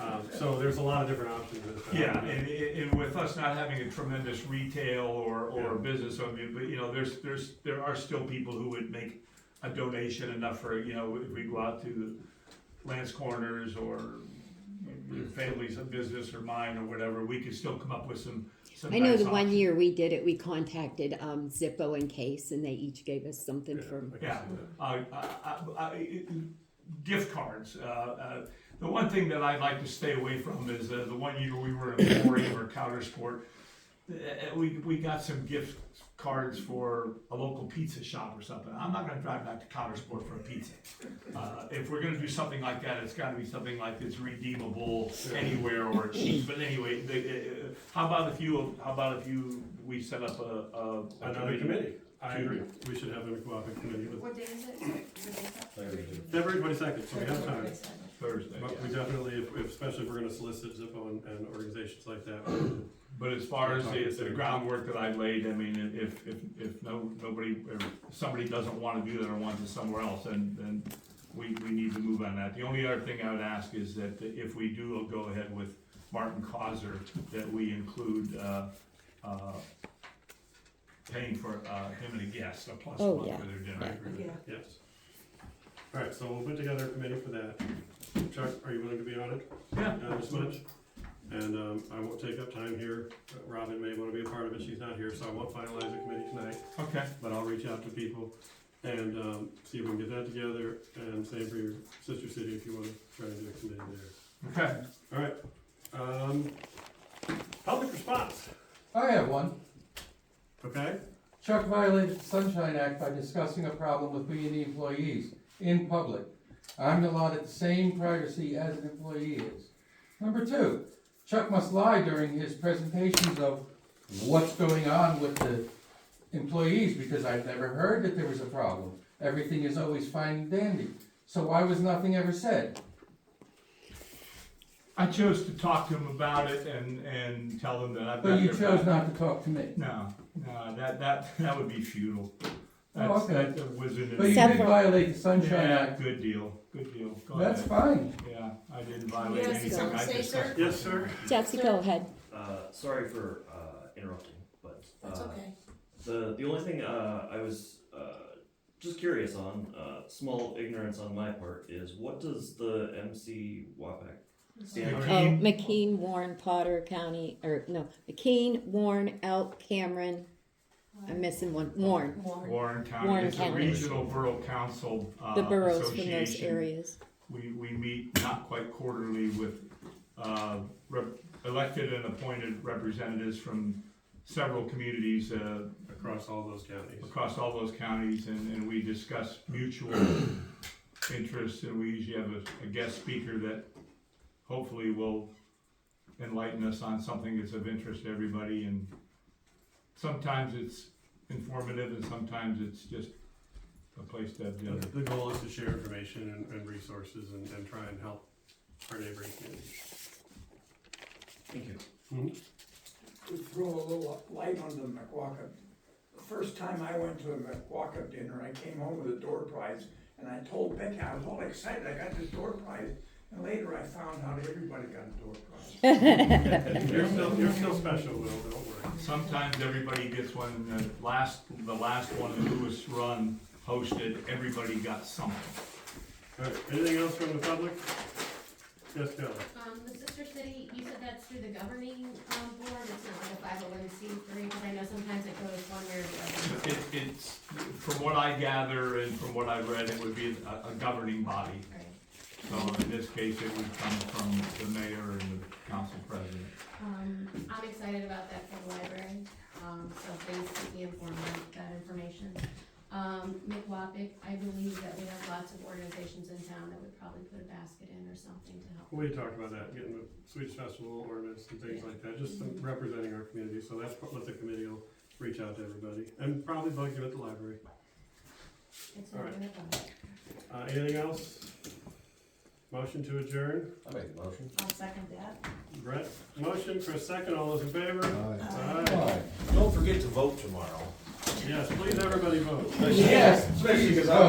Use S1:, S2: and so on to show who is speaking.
S1: Um, So there's a lot of different options. at the time.
S2: Yeah, and, and with us not having a tremendous retail or, or business, I mean, but, you know, there's, there's, there are still people who would make a donation enough for, you know, if we go out to Lance Corners or your family's business or mine or whatever, we could still come up with some, some
S3: I know
S2: nice
S3: the one
S2: options.
S3: year we did it, we contacted um, Zippo and Case, and they each gave us something
S1: Yeah,
S3: for.
S1: I can
S2: Yeah,
S1: see that.
S2: uh, I- I- I- gift cards. Uh, uh, The one thing that I'd like to stay away from is uh, the one year we were in Boring or Counter Sport. uh, uh, We, we got some gift cards for a local pizza shop or something. I'm not gonna drive back to Counter Sport for a pizza. Uh, If we're gonna do something like that, it's gotta be something like it's redeemable anywhere or cheap. But anyway, the, uh, uh, how about if you, how about if you, we set up a, a. a
S1: Another committee, I agree, we should have a cooperative committee with
S4: What day is it? Sorry, What day is that?
S1: February twenty-second, so we have time.
S2: Thursday,
S1: But
S2: yeah.
S1: we definitely, if- if- especially if we're gonna solicit Zippo and, and organizations like that,
S2: But as far as the, the groundwork that I laid, I mean, if, if, if no, nobody, if somebody doesn't wanna do that or wants it somewhere else, then, then we, we need to move on that. The only other thing I would ask is that if we do go ahead with Martin Causer, that we include, uh, uh, paying for, uh, him and a guest, a plus
S3: Oh,
S2: one
S3: yeah,
S2: for their dinner.
S4: Yeah.
S1: yes. All right, so we'll put together a committee for that. Chuck, are you willing to be on it,
S2: Yeah.
S1: uh, this much? And, um, I won't take up time here, Uh, Robin may wanna be a part of it, she's not here, so I won't finalize the committee tonight.
S2: Okay,
S1: but I'll reach out to people and um, see if we can get that together, and same for your sister city if you want to try and do a committee there.
S2: okay.
S1: All right. Um, Public response,
S5: I have one.
S1: okay?
S5: Chuck violated the Sunshine Act by discussing a problem with me and the employees in public. I'm allotted the same privacy as an employee is. Number two, Chuck must lie during his presentations of what's going on with the employees because I've never heard that there was a problem. Everything is always fine and dandy. So why was nothing ever said?
S2: I chose to talk to him about it and, and tell him that I've got
S5: But you
S2: their
S5: chose
S2: back.
S5: not to talk to me.
S2: No, no, that, that, that would be futile.
S5: Oh,
S2: That's,
S5: okay.
S2: that's a wizard.
S5: But you
S3: Except
S5: did
S3: for-
S5: violate the Sunshine
S2: Yeah,
S5: Act.
S2: good deal, good deal. Go
S5: That's
S2: ahead.
S5: fine.
S2: Yeah, I didn't violate
S4: Yes,
S2: anything.
S4: don't
S2: I
S4: say,
S2: just-
S4: sir.
S1: Yes, sir.
S3: Jessica, go ahead.
S6: Uh, sorry for uh, interrupting, but uh,
S4: That's okay.
S6: the the only thing uh, I was uh, just curious on, uh, small ignorance on my part, is what does the MC WAPAC
S1: Uh,
S6: stand
S3: Oh,
S6: for?
S2: McKean.
S3: McKean, Warren, Potter County, or no, McKean, Warren, Elk, Cameron. I'm missing one. Warren,
S4: Warren.
S2: Warren County
S3: Oh, Warren
S2: is a
S3: County.
S2: regional borough council, uh,
S3: the boroughs from those
S2: association.
S3: areas.
S2: We, we meet not quite quarterly with, uh, rep- elected and appointed representatives from several communities, uh,
S1: Across all those counties.
S2: across all those counties, and, and we discuss mutual interests, and we usually have a, a guest speaker that hopefully will enlighten us on something that's of interest to everybody, and sometimes it's informative, and sometimes it's just a place to have dinner.
S1: The goal is to share information and, and resources and, and try and help our neighboring communities. Mm-hmm.
S6: Thank you.
S7: to throw a little light on the McWalkup. The first time I went to a McWalkup dinner, I came home with a door prize, and I told Becky, I was all excited, I got this door prize, and later I found out everybody got a door prize.
S1: You're still, you're still special, Will, don't worry.
S2: Sometimes everybody gets one, and the last, the last one that Lewis Run hosted, everybody got something.
S1: All right, anything else from the public? Yes, Kelly?
S8: Um, the sister city, you said that's through the governing, um, board, it's not like a five oh one C three, because I know sometimes it goes one way or the other.
S2: It, it's, from what I gather and from what I've read, it would be a, a governing body.
S8: Right.
S2: So in this case, it would come from the mayor and the council president.
S8: Um, I'm excited about that for the library, um, so please keep me informed of that information. Um, McWapic, I believe that we have lots of organizations in town that would probably put a basket in or something to help.
S1: We talked about that, getting the Swedish festival ornaments and things like that, just some representing our community, so that's what the committee will reach out to everybody, and probably bug you at the library.
S8: It's
S1: All
S8: not
S1: right.
S8: gonna go.
S1: Uh, anything else? Motion to adjourn,
S6: I make a motion.
S4: I'll second that.
S1: Brett, motion, Chris second, all those in favor? Aye,
S5: Aye.
S9: Don't forget to vote tomorrow.
S1: yes, please everybody vote.
S5: Yes, please, vote.